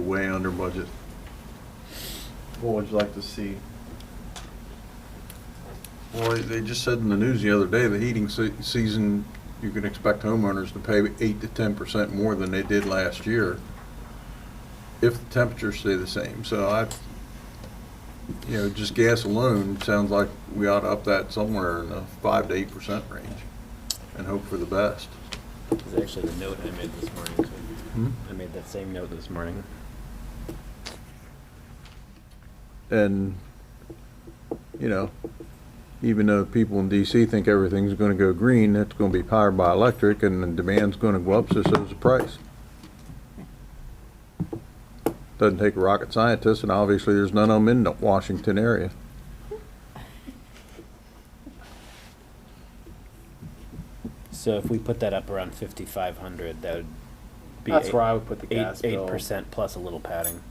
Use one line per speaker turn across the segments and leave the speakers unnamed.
way under budget. What would you like to see? Well, they- they just said in the news the other day, the heating se- season, you can expect homeowners to pay eight to ten percent more than they did last year if the temperatures stay the same. So I, you know, just gas alone, sounds like we ought to up that somewhere in the five to eight percent range and hope for the best.
It's actually the note I made this morning,
Hmm?
too. I made that same note this morning.
And, you know, even though people in DC think everything's gonna go green, it's gonna be powered by electric and the demand's gonna go up, so so's the price. Doesn't take a rocket scientist, and obviously there's none of them in the Washington area.
So if we put that up around fifty-five hundred, that would be
That's
eight-
where I would put the
eight,
gas
eight
bill.
percent plus a little padding.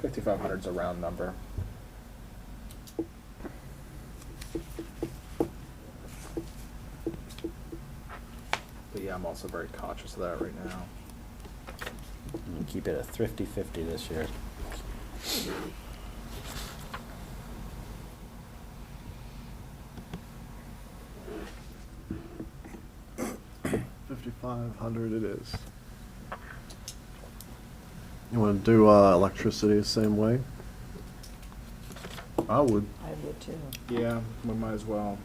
Fifty-five hundred's a round number. But yeah, I'm also very conscious of that right now.
And keep it a thrifty fifty this year.
Fifty-five hundred it is. You want to do uh, electricity the same way?
I would.
I would too.
Yeah, we might as well.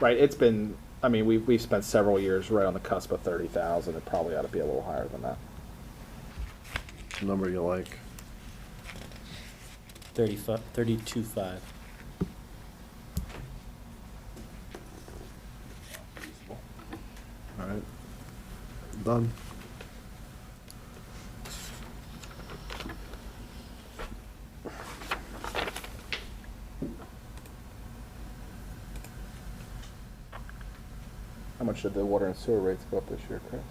Right, it's been, I mean, we've, we've spent several years right on the cusp of thirty thousand. It probably ought to be a little higher than that.
Number you like.
Thirty-five, thirty-two five.
All right. Done.
How much did the water and sewer rates go up this year, Chris?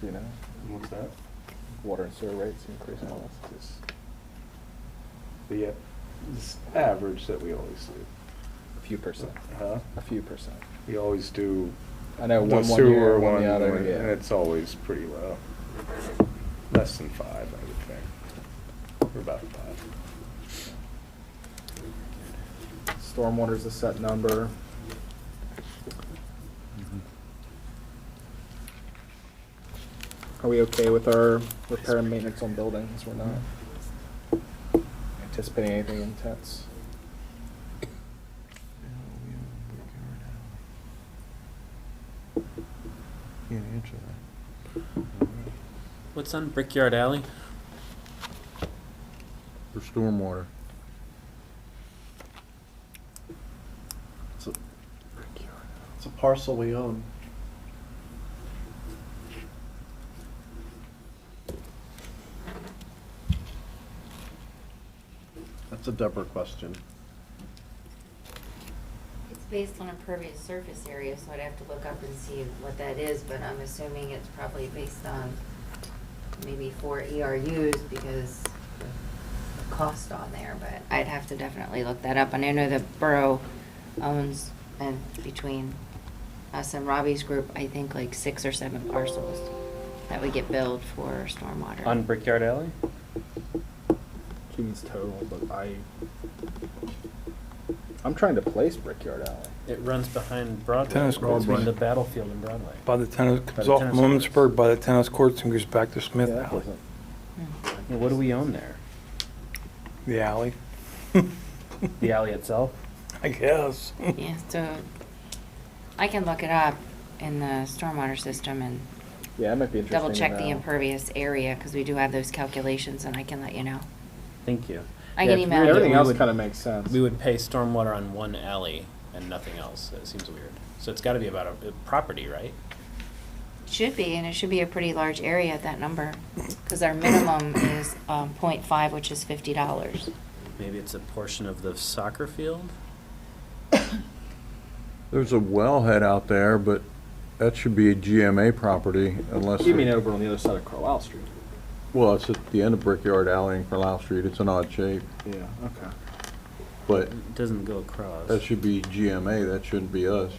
Do you know?
What's that?
Water and sewer rates increase and all that. Just-
The, uh, this average that we always do.
A few percent,
Huh?
a few percent.
We always do
I know
the
one one
sewer
year,
one,
one the other,
and
yeah.
it's always pretty low. Less than five, I would think. Or about five.
Stormwater's a set number. Are we okay with our repair and maintenance on buildings? We're not anticipating anything intense.
Can't answer that.
What's on Brickyard Alley?
For stormwater.
It's a, it's a parcel we own. That's a Deborah question.
It's based on impervious surface area, so I'd have to look up and see what that is, but I'm assuming it's probably based on maybe four ERUs because of the cost on there, but I'd have to definitely look that up. And I know the borough owns, and between us and Robbie's group, I think like six or seven parcels that we get billed for stormwater.
On Brickyard Alley?
She means total, but I, I'm trying to place Brickyard Alley.
It runs behind Broadway,
Tennis courts.
between the battlefield and Broadway.
By the tennis, comes
the
off
tennis
Mumsburg
courts.
by the tennis courts and goes back to
Yeah,
Smith
that
Alley,
wasn't-
Hmm.
Yeah, What do we own there?
the alley,
The alley itself?
I guess.
Yeah, so I can look it up in the stormwater system and
Yeah, that might be interesting.
double check
to
the
know.
impervious area, because we do have those calculations, and I can let you know.
Thank you.
I
Yeah,
can
if
email
we were
you.
Everything
We
else
would-
kind of makes sense.
We would pay stormwater on one alley and nothing else. That seems weird. So it's gotta be about a, a property, right?
Should be, and it should be a pretty large area at that number, because our minimum is um, .5, which is fifty dollars.
Maybe it's a portion of the soccer field?
There's a wellhead out there, but that should be a GMA property unless.
You mean over on the other side of Carlisle Street?
Well, it's at the end of Brickyard Alley in Carlisle Street. It's an odd shape,
Yeah, okay.
but
It doesn't go across.
That should be GMA, that shouldn't be us,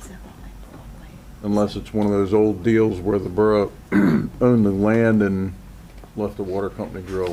unless it's one of those old deals where the borough owned the land and left the water company grow